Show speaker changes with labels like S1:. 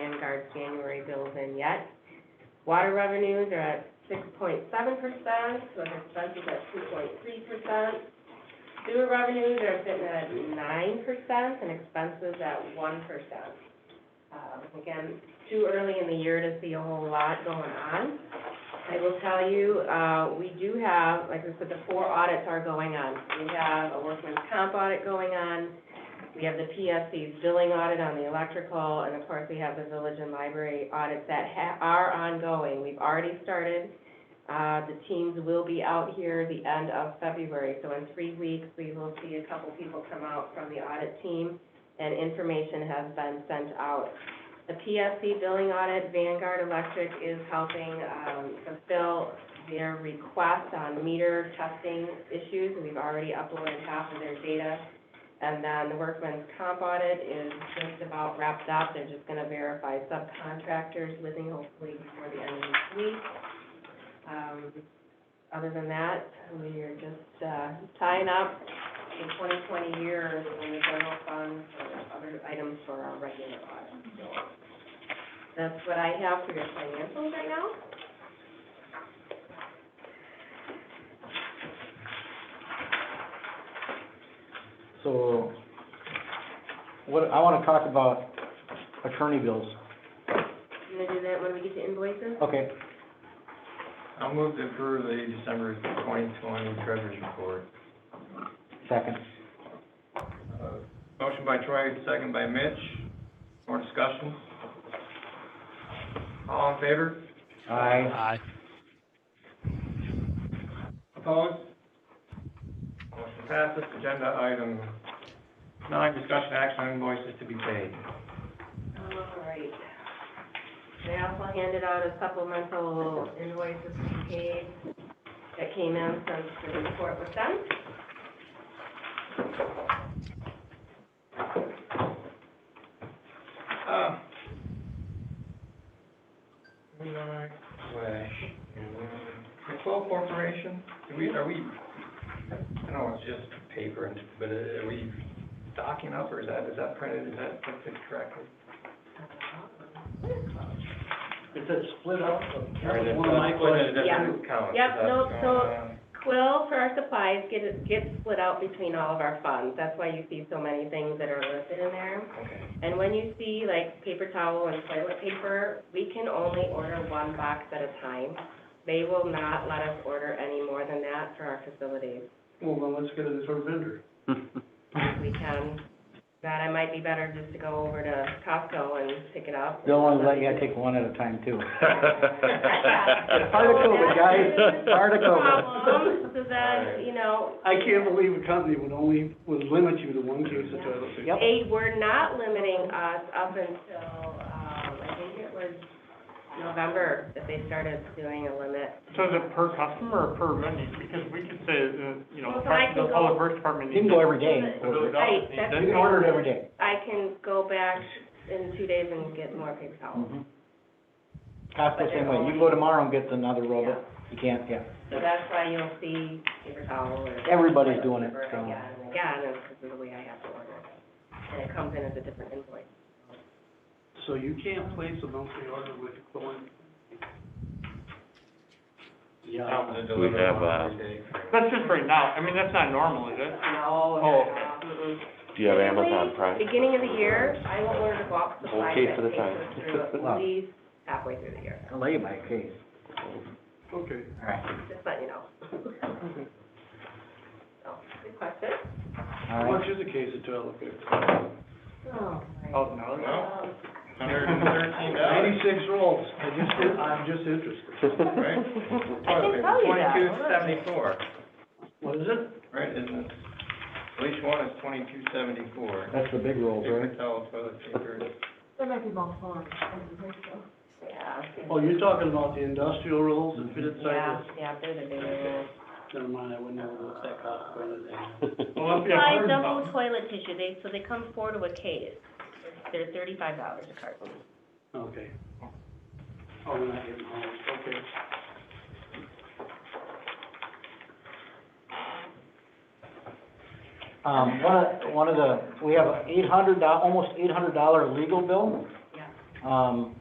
S1: Vanguard's January bills in yet. Water revenues are at six point seven percent, with expenses at two point three percent. Sewer revenues are sitting at nine percent and expenses at one percent. Um, again, too early in the year to see a whole lot going on. I will tell you, uh, we do have, like I said, the four audits are going on. We have a workman's comp audit going on, we have the PSC's billing audit on the electrical, and of course, we have the village and library audits that ha- are ongoing. We've already started. Uh, the teams will be out here the end of February, so in three weeks, we will see a couple people come out from the audit team, and information has been sent out. The PSC billing audit, Vanguard Electric is helping, um, fulfill their request on meter testing issues. We've already uploaded half of their data. And then the workman's comp audit is just about wrapped up. They're just gonna verify subcontractors living hopefully before the end of this week. Um, other than that, we are just, uh, tying up the twenty twenty year in the general fund for other items for our regular audit. So That's what I have for your financials right now.
S2: So, what, I wanna talk about attorney bills,
S1: I'm gonna do that when we get to invoices.
S2: okay,
S3: I'll move to approve the December twenty twenty treasurer's report.
S2: second.
S3: Uh, Motion by Troy, second by Mitch. More discussion? All in favor?
S2: Aye.
S4: Aye.
S3: Opposed? Motion passes. Agenda item nine, discussion action on invoices to be paid.
S1: All right. They also handed out a supplemental invoices to be paid that came in since the report was done.
S3: Uh, Moving on, way. The Quill Corporation, do we, are we, I know it's just paper, and but are we docking up, or is that, is that printed, is that printed correctly?
S2: Is it split up?
S3: Or is it split in a different account?
S1: Yep,
S3: That's
S1: no,
S3: going
S1: so-
S3: on.
S1: Quill for our supplies gets, gets split out between all of our funds. That's why you see so many things that are listed in there.
S3: Okay,
S1: And when you see like paper towel and toilet paper, we can only order one box at a time. They will not let us order any more than that for our facilities.
S5: Well, then let's get a different vendor.
S1: we can. That it might be better just to go over to Costco and pick it up.
S2: They'll only let you take one at a time too.
S1: Part
S2: of COVID, guys. Part of COVID.
S1: Problem, so then, you know.
S5: I can't believe a company would only, would limit you to one case of toilet paper.
S2: Yep.
S1: They were not limiting us up until, um, I think it was November that they started doing a limit.
S6: So is it per customer or per vendor? Because we could say, uh, you know, the
S1: Well, so I can go-
S6: public works department
S2: You
S6: needs.
S2: can go every day,
S6: the village office
S1: Right,
S6: needs
S1: that's-
S2: you
S6: it.
S2: can order it every day.
S1: I can go back in two days and get more paper towels.
S2: Mm-hmm. Costco same way, you go tomorrow and get another roll, but you can't, yeah,
S1: So that's why you'll see paper towel or.
S2: Everybody's doing it, so.
S1: Yeah, yeah, and this is the way I have to order it. And it comes in as a different invoice.
S5: So you can't place a monthly order with Quillen.
S3: Top of the
S7: We
S3: delivery
S7: have,
S3: on
S7: uh,
S3: every day.
S6: That's just right now. I mean, that's not normal, is it?
S1: No,
S6: Oh,
S1: no,
S6: okay.
S1: mm-mm.
S7: Do you have Amazon Prime?
S1: Typically, beginning of the year, I will order the box supplies
S7: Okay
S1: that
S7: for the
S1: takes us through
S2: Wow.
S1: at least halfway through the year,
S2: delay by case.
S5: Okay.
S2: All right,
S1: just letting you know. Oh, So, good question.
S2: all
S5: How
S2: right.
S5: much is a case of toilet paper?
S1: Oh,
S6: Thousand dollars?
S1: Um,
S3: Hundred and thirteen dollars.
S5: Ninety-six rolls. I just, I'm just interested.
S1: I
S3: Right?
S1: can tell you that.
S3: Twenty-two seventy-four,
S5: What is it?
S3: right, isn't it? At least one is twenty-two seventy-four.
S2: That's the big rolls,
S3: Paper
S2: right?
S3: towel, toilet paper.
S1: Yeah.
S5: Oh, you're talking about the industrial rolls that fit
S1: Yeah,
S5: inside
S1: yeah, they're the big ones.
S5: this? Never mind, I wouldn't know what that cost for anything.
S6: Well, that'd be a hundred
S1: double
S6: bucks.
S1: toilet tissue, they, so they come four to a case. They're thirty-five dollars a carton.
S5: Okay. Oh, we're not getting home, okay.
S2: Um, one of, one of the, we have eight hundred, almost eight hundred dollar legal bill.
S1: Yeah.
S2: Um,